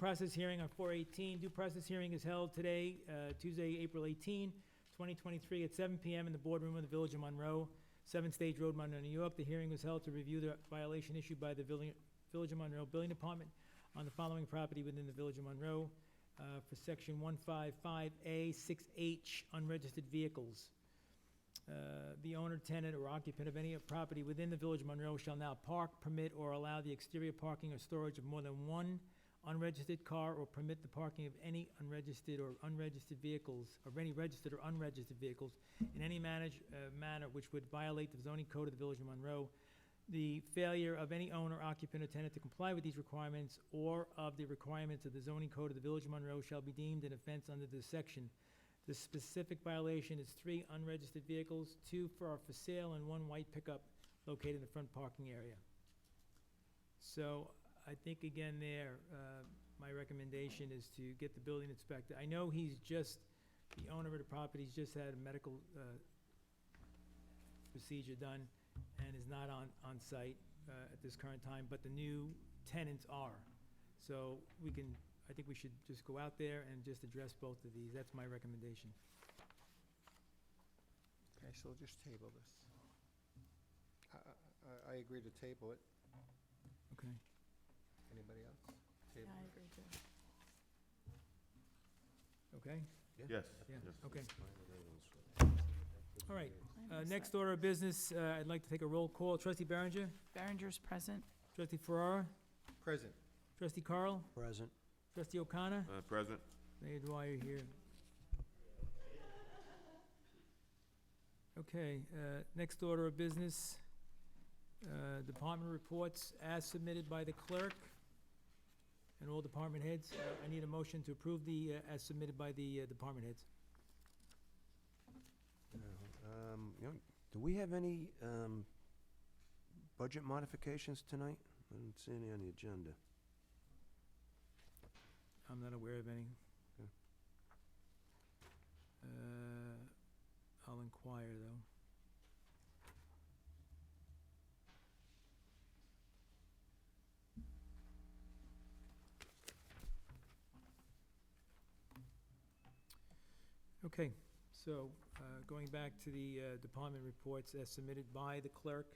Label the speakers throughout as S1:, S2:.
S1: Process hearing on four eighteen, due process hearing is held today, uh, Tuesday, April 18, 2023, at seven PM in the boardroom of the Village of Monroe, Seventh Stage Road, Monroe, New York. The hearing was held to review the violation issued by the Villi- Village of Monroe Building Department on the following property within the Village of Monroe, uh, for section one five five A six H unregistered vehicles. Uh, the owner, tenant, or occupant of any property within the Village of Monroe shall now park, permit, or allow the exterior parking or storage of more than one unregistered car or permit the parking of any unregistered or unregistered vehicles, of any registered or unregistered vehicles in any manage, uh, manner which would violate the zoning code of the Village of Monroe. The failure of any owner, occupant, or tenant to comply with these requirements or of the requirements of the zoning code of the Village of Monroe shall be deemed an offense under this section. The specific violation is three unregistered vehicles, two for are for sale, and one white pickup located in the front parking area. So I think again there, uh, my recommendation is to get the building inspector. I know he's just, the owner of the property's just had a medical uh, procedure done and is not on, on site uh, at this current time, but the new tenants are. So we can, I think we should just go out there and just address both of these. That's my recommendation.
S2: Okay, so we'll just table this. I, I- I, I agree to table it.
S1: Okay.
S2: Anybody else?
S3: Yeah,
S2: Table
S3: I
S2: it.
S3: agree too.
S1: Okay?
S4: Yes.
S1: Yeah,
S4: yes.
S1: okay. All right, Uh, Next order of business, uh, I'd like to take a roll call. Trustee Berenger,
S3: Berenger's present.
S1: trustee Ferrara,
S2: Present.
S1: trustee Carl,
S5: Present.
S1: trustee O'Connor,
S4: Uh, President,
S1: Mayor Dwyer here. Okay, uh, next order of business, uh, department reports as submitted by the clerk and all department heads. Uh, I need a motion to approve the, uh, as submitted by the uh, department heads.
S5: Um, you know, do we have any, um, budget modifications tonight? I didn't see any on the agenda.
S1: I'm not aware of any.
S5: Okay.
S1: Uh, I'll inquire, though. Okay, so, uh, going back to the, uh, department reports as submitted by the clerk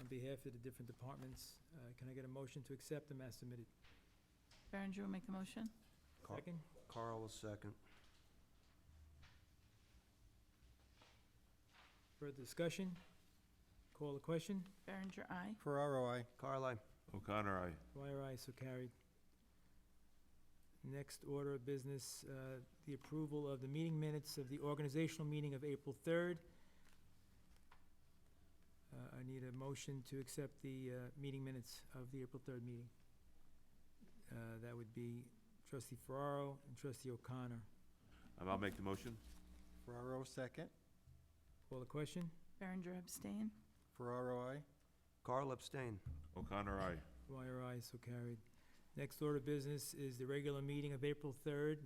S1: on behalf of the different departments, uh, can I get a motion to accept them as submitted?
S3: Berenger will make the motion.
S5: Car-
S1: Second?
S5: Carl will second.
S1: Further discussion? Call the question?
S3: Berenger, aye.
S2: Ferraro, I.
S5: Carl, I,
S4: O'Connor, aye.
S1: Dwyer, aye, so carried. Next order of business, uh, the approval of the meeting minutes of the organizational meeting of April 3rd. Uh, I need a motion to accept the uh, meeting minutes of the April 3rd meeting. Uh, That would be trustee Ferraro and trustee O'Connor.
S4: Um, I'll make the motion.
S2: Ferraro, second.
S1: Call the question?
S3: Berenger abstain.
S2: Ferraro, I.
S5: Carl abstain.
S4: O'Connor, aye.
S1: Dwyer, aye, so carried. Next order of business is the regular meeting of April third.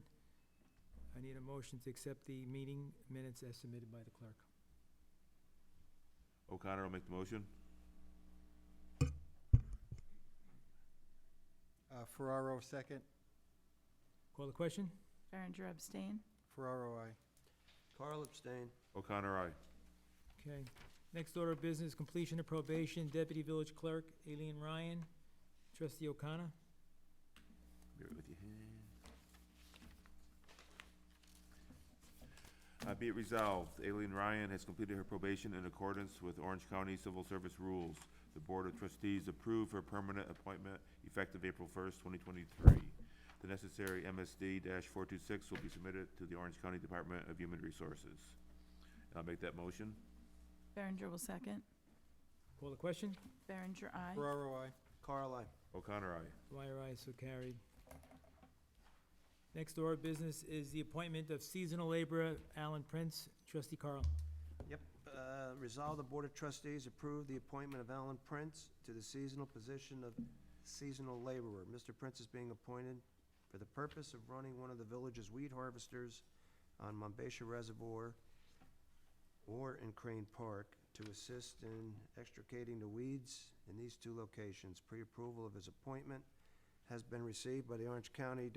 S1: I need a motion to accept the meeting minutes as submitted by the clerk.
S4: O'Connor will make the motion.
S2: Uh, Ferraro, second.
S1: Call the question?
S3: Berenger abstain.
S2: Ferraro, I.
S5: Carl abstain.
S4: O'Connor, aye.
S1: Okay. Next order of business, completion of probation, Deputy Village Clerk, Aileen Ryan. Trustee O'Connor?
S4: Be right with you. Uh, be it resolved, Aileen Ryan has completed her probation in accordance with Orange County Civil Service rules. The Board of Trustees approve her permanent appointment effective April first, twenty twenty-three. The necessary MSD four two six will be submitted to the Orange County Department of Human Resources. And I'll make that motion.
S3: Berenger will second.
S1: Call the question?
S3: Berenger, aye.
S2: Ferraro, I.
S5: Carl, I,
S4: O'Connor, aye.
S1: Dwyer, aye, so carried. Next order of business is the appointment of seasonal laborer Alan Prince. Trustee Carl?
S5: Yep. Uh, resolve the Board of Trustees approve the appointment of Alan Prince to the seasonal position of seasonal laborer. Mr. Prince is being appointed for the purpose of running one of the village's weed harvesters on Monbassia Reservoir or in Crane Park to assist in extricating the weeds in these two locations. Pre-approval of his appointment has been received by the Orange County